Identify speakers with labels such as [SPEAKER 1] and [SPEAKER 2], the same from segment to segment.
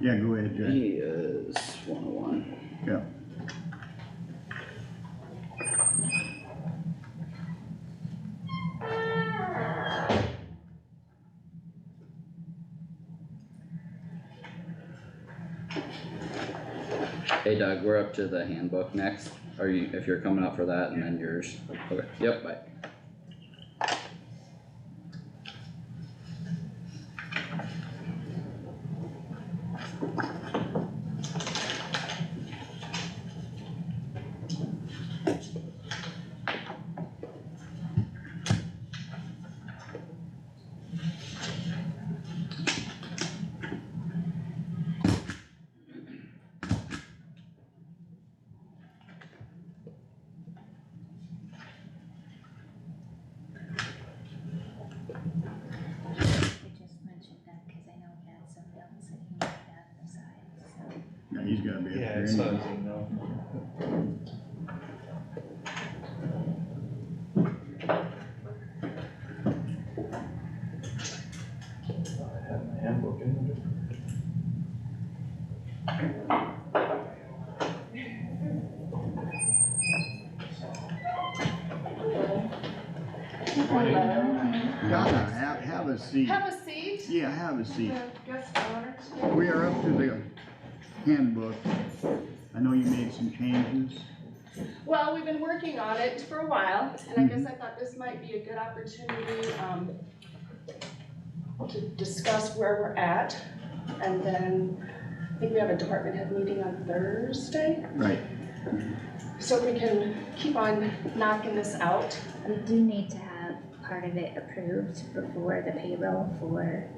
[SPEAKER 1] Yeah, go ahead, Jack.
[SPEAKER 2] He is one oh one.
[SPEAKER 1] Yeah.
[SPEAKER 2] Hey Doug, we're up to the handbook next. Are you, if you're coming up for that and then yours. Okay, yep, bye.
[SPEAKER 3] I just mentioned that because I know he had some notes that he made on the side, so.
[SPEAKER 1] Yeah, he's gotta be up
[SPEAKER 4] Yeah,
[SPEAKER 1] there
[SPEAKER 4] it's not,
[SPEAKER 1] anyway.
[SPEAKER 4] you know. I had my handbook in there.
[SPEAKER 1] Donna, have, have a seat.
[SPEAKER 5] Have a seat.
[SPEAKER 1] Yeah, have a seat.
[SPEAKER 5] The guest honor.
[SPEAKER 1] We are up to the handbook. I know you made some changes.
[SPEAKER 5] Well, we've been working on it for a while, and I guess I thought this might be a good opportunity, um, to discuss where we're at, and then I think we have a department head meeting on Thursday,
[SPEAKER 1] Right,
[SPEAKER 5] so we can keep on knocking this out.
[SPEAKER 3] We do need to have part of it approved before the payroll for,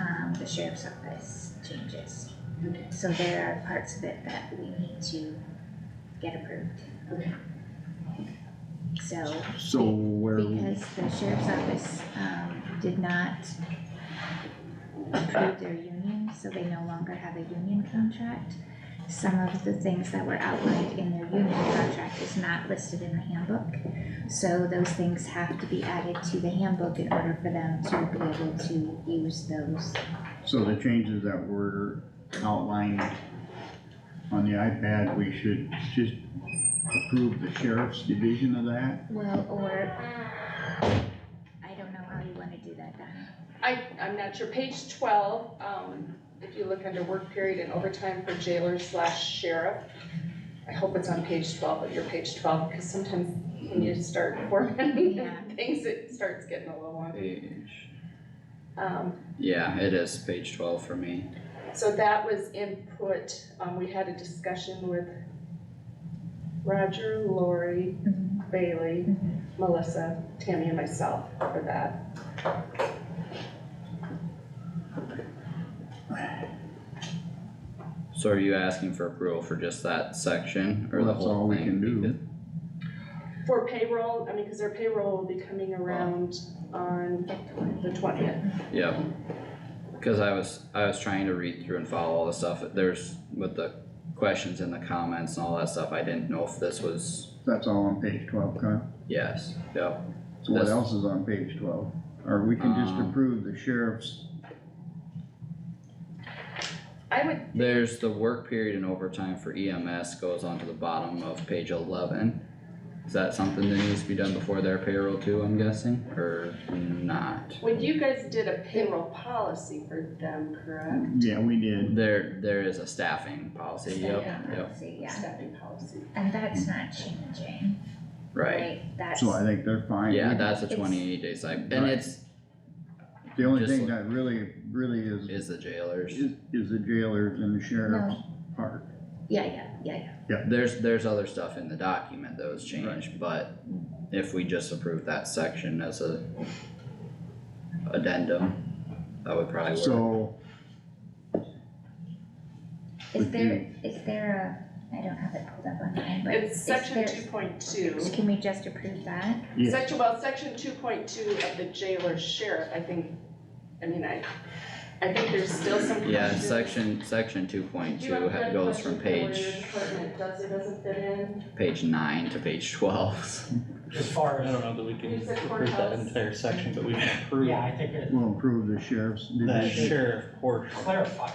[SPEAKER 3] um, the sheriff's office changes.
[SPEAKER 5] Okay.
[SPEAKER 3] So there are parts of it that we need to get approved.
[SPEAKER 5] Okay.
[SPEAKER 3] So,
[SPEAKER 1] so where,
[SPEAKER 3] because the sheriff's office, um, did not approve their union, so they no longer have a union contract. Some of the things that were outlined in their union contract is not listed in the handbook. So those things have to be added to the handbook in order for them to be able to use those.
[SPEAKER 1] so the changes that were outlined on the iPad, we should just approve the sheriff's division of that?
[SPEAKER 3] Well, or, I don't know how you wanna do that, Donna.
[SPEAKER 5] I, I'm not sure, page twelve, um, if you look under work period and overtime for jailer slash sheriff. I hope it's on page twelve of your page twelve, because sometimes when you start working,
[SPEAKER 3] Yeah.
[SPEAKER 5] things, it starts getting a little long.
[SPEAKER 2] Page.
[SPEAKER 5] Um,
[SPEAKER 2] Yeah, it is page twelve for me.
[SPEAKER 5] so that was input, um, we had a discussion with Roger, Lori,
[SPEAKER 3] Mm-hmm.
[SPEAKER 5] Bailey, Melissa, Tammy and myself for that.
[SPEAKER 2] So are you asking for approval for just that section or the
[SPEAKER 1] Well, that's all
[SPEAKER 2] whole
[SPEAKER 1] we
[SPEAKER 2] thing?
[SPEAKER 1] can do.
[SPEAKER 2] Because-
[SPEAKER 5] For payroll, I mean, because their payroll will be coming around on the twentieth.
[SPEAKER 2] Yep. Cause I was, I was trying to read through and follow all the stuff. There's with the questions and the comments and all that stuff. I didn't know if this was,
[SPEAKER 1] That's all on page twelve, Kyle?
[SPEAKER 2] yes, yep.
[SPEAKER 1] So what
[SPEAKER 2] That's-
[SPEAKER 1] else is on page twelve? Or we can just
[SPEAKER 2] Um,
[SPEAKER 1] approve the sheriff's,
[SPEAKER 5] I would,
[SPEAKER 2] There's the work period and overtime for EMS goes on to the bottom of page eleven. Is that something that needs to be done before their payroll too, I'm guessing, or not?
[SPEAKER 5] when you guys did a payroll policy for them, correct?
[SPEAKER 2] Mm-hmm.
[SPEAKER 1] yeah, we did.
[SPEAKER 2] There, there is a staffing policy, yep,
[SPEAKER 3] Staffing
[SPEAKER 2] yep,
[SPEAKER 3] policy, Yeah,
[SPEAKER 5] Staffing policy.
[SPEAKER 3] and that's not changing,
[SPEAKER 2] right.
[SPEAKER 3] right? That's.
[SPEAKER 1] So I think they're fine.
[SPEAKER 2] Yeah,
[SPEAKER 1] We-
[SPEAKER 2] that's a
[SPEAKER 3] It's-
[SPEAKER 2] twenty-eight day cycle, and
[SPEAKER 1] Right.
[SPEAKER 2] it's,
[SPEAKER 1] The only
[SPEAKER 2] just
[SPEAKER 1] thing
[SPEAKER 2] look-
[SPEAKER 1] that really, really is,
[SPEAKER 2] is the jailers.
[SPEAKER 1] is, is the jailers and the sheriff's part.
[SPEAKER 3] Yeah, yeah, yeah, yeah.
[SPEAKER 2] There's, there's other stuff in the document that was changed, but if we just approve that section as a addendum, that would probably work.
[SPEAKER 1] So,
[SPEAKER 3] Is
[SPEAKER 1] Would
[SPEAKER 3] there, is there a, I don't have it pulled up online, but.
[SPEAKER 5] It's
[SPEAKER 3] is
[SPEAKER 5] section
[SPEAKER 3] there-
[SPEAKER 5] two point two.
[SPEAKER 3] Can we just approve that?
[SPEAKER 1] yes,
[SPEAKER 5] Section, well, section two point two of the jailer sheriff, I think, I mean, I, I think there's still some.
[SPEAKER 2] Yeah,
[SPEAKER 5] question.
[SPEAKER 2] section, section two point
[SPEAKER 5] Do you have
[SPEAKER 2] two
[SPEAKER 5] a red
[SPEAKER 2] goes from
[SPEAKER 5] question for where your
[SPEAKER 2] page,
[SPEAKER 5] department Does or doesn't fit in?
[SPEAKER 2] page nine to page twelve.
[SPEAKER 6] As far
[SPEAKER 4] I don't
[SPEAKER 6] as,
[SPEAKER 4] know that we can
[SPEAKER 5] You said
[SPEAKER 4] approve that
[SPEAKER 5] courthouse.
[SPEAKER 4] entire section, but we can approve
[SPEAKER 6] yeah, I think it
[SPEAKER 1] we'll improve the sheriff's
[SPEAKER 4] that
[SPEAKER 1] division.
[SPEAKER 4] sheriff portion.
[SPEAKER 6] clarify,